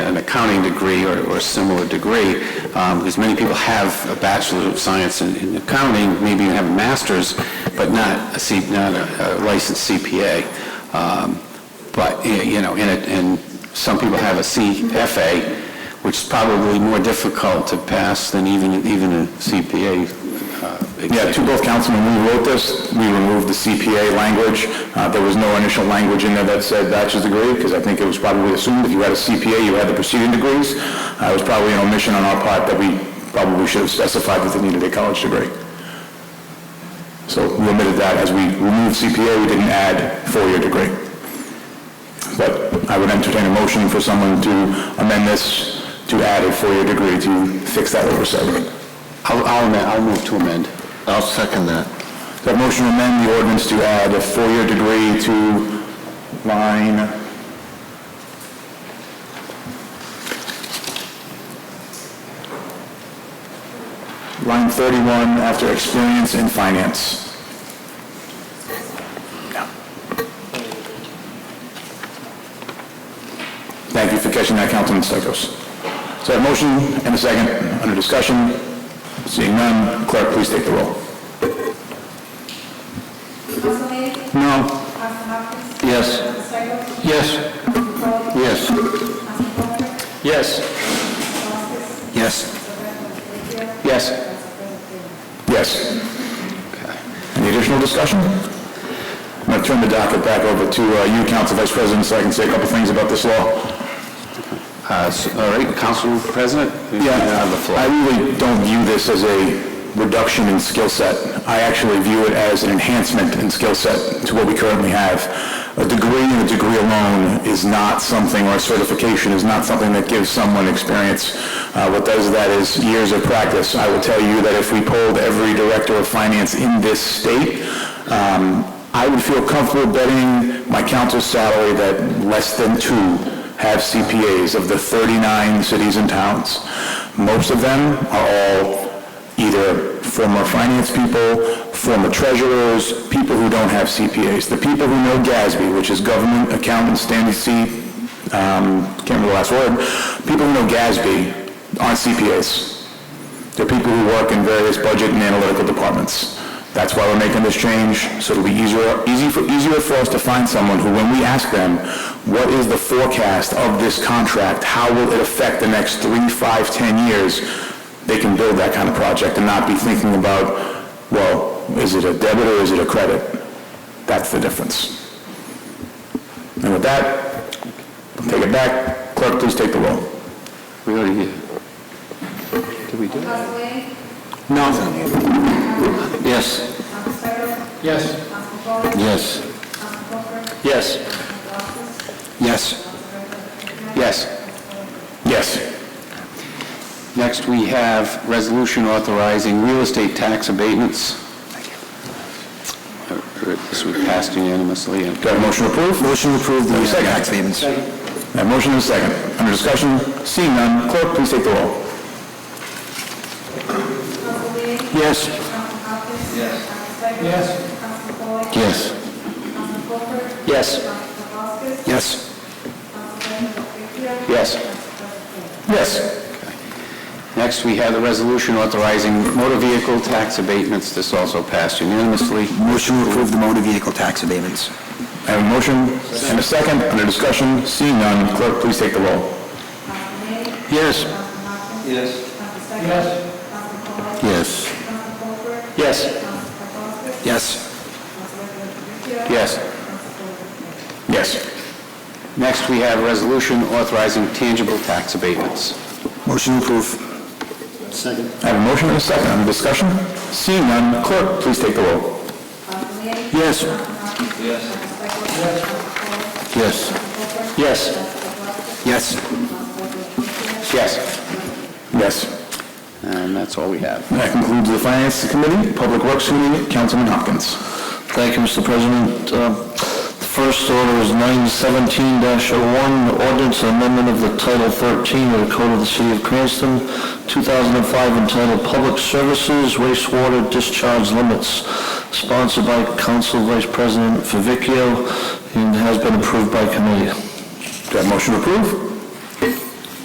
accounting degree or or similar degree, um, because many people have a Bachelor of Science in in accounting, maybe even have a master's, but not a C- not a a licensed CPA. Um, But, y- you know, in it- and some people have a CFA, which is probably more difficult to pass than even even a CPA. uh, Yeah, to both councilmen, when we wrote this, we removed the CPA language. Uh, There was no initial language in there that said bachelor's degree, because I think it was probably assumed if you had a CPA, you had the preceding degrees. Uh, It was probably an omission on our part that we probably should have specified that they needed a college degree. So we omitted that. As we removed CPA, we didn't add four-year degree. But I would entertain a motion for someone to amend this to add a four-year degree to fix that oversight. I'll I'll amend- I'll move to amend. I'll second that. That motion to amend the ordinance to add a four-year degree to line, line 31 after experience in finance. Thank you for catching that, Councilman Stichels. So I have a motion and a second under discussion. Seeing none, clerk, please take the roll. Council Lee? No. Council Hopkins? Yes. Council Stieglus? Yes. Council Cole? Yes. Council Culver? Yes. Yes. Yes. Yes. Any additional discussion? I'm going to turn the docket back over to uh, you, Council Vice President, so I can say a couple things about this law. Uh, s- All right, Council President? you have the floor. I really don't view this as a reduction in skill set. I actually view it as an enhancement in skill set to what we currently have. A degree and a degree alone is not something, or a certification is not something that gives someone experience. Uh, What does that is years of practice. I will tell you that if we polled every director of finance in this state, um, I would feel comfortable betting my council salary that less than two have CPAs of the 39 cities and towns. Most of them are all either former finance people, former treasurers, people who don't have CPAs. The people who know GASB, which is Government Accountant Standing C, um, can't remember the last word, people who know GASB aren't CPAs. They're people who work in various budget and analytical departments. That's why we're making this change, so it'll be easier, easy for, easier for us to find someone who, when we ask them, what is the forecast of this contract? How will it affect the next three, five, ten years? They can build that kind of project and not be thinking about, well, is it a debit or is it a credit? That's the difference. And with that, I'll take it back. Clerk, please take the roll. We already, did we do it? Council Lee? No. Yes. Council Stieglus? Yes. Council Cole? Yes. Council Culver? Yes. Yes. Yes. Yes. Next, we have resolution authorizing real estate tax abatements. This was passed unanimously. and- Do I have a motion to approve? Motion to approve the tax abatements. A motion and a second. Under discussion, seeing none, clerk, please take the roll. Council Lee? Yes. Council Hopkins? Yes. Council Stieglus? Yes. Council Cole? Yes. Council Culver? Yes. Council Stieglus? Yes. Council Stieglus? Yes. Council Yes. Next, we have the resolution authorizing motor vehicle tax abatements. This also passed unanimously. Motion to approve the motor vehicle tax abatements. I have a motion and a second. Under discussion, seeing none, clerk, please take the roll. Lee? Yes. Council Hopkins? Yes. Council Stieglus? Yes. Council Cole? Yes. Council Culver? Yes. Council Stieglus? Yes. Council Stieglus? Yes. Council Culver? Yes. Next, we have resolution authorizing tangible tax abatements. Motion to approve. I have a motion and a second. Under discussion, seeing none, clerk, please take the roll. Yes. Yes. Yes. Yes. Yes. Yes. And that's all we have. That concludes the Finance Committee, Public Works Committee, Councilman Hopkins. Thank you, Mr. President. Uh, The first order is 917-01, ordinance and amendment of the Title 13 of the Code of the City of Cranston, 2005, entitled Public Services Wastewater Discharge Limits, sponsored by Council Vice President Favicchio, and has been approved by committee. Do I have a motion to approve?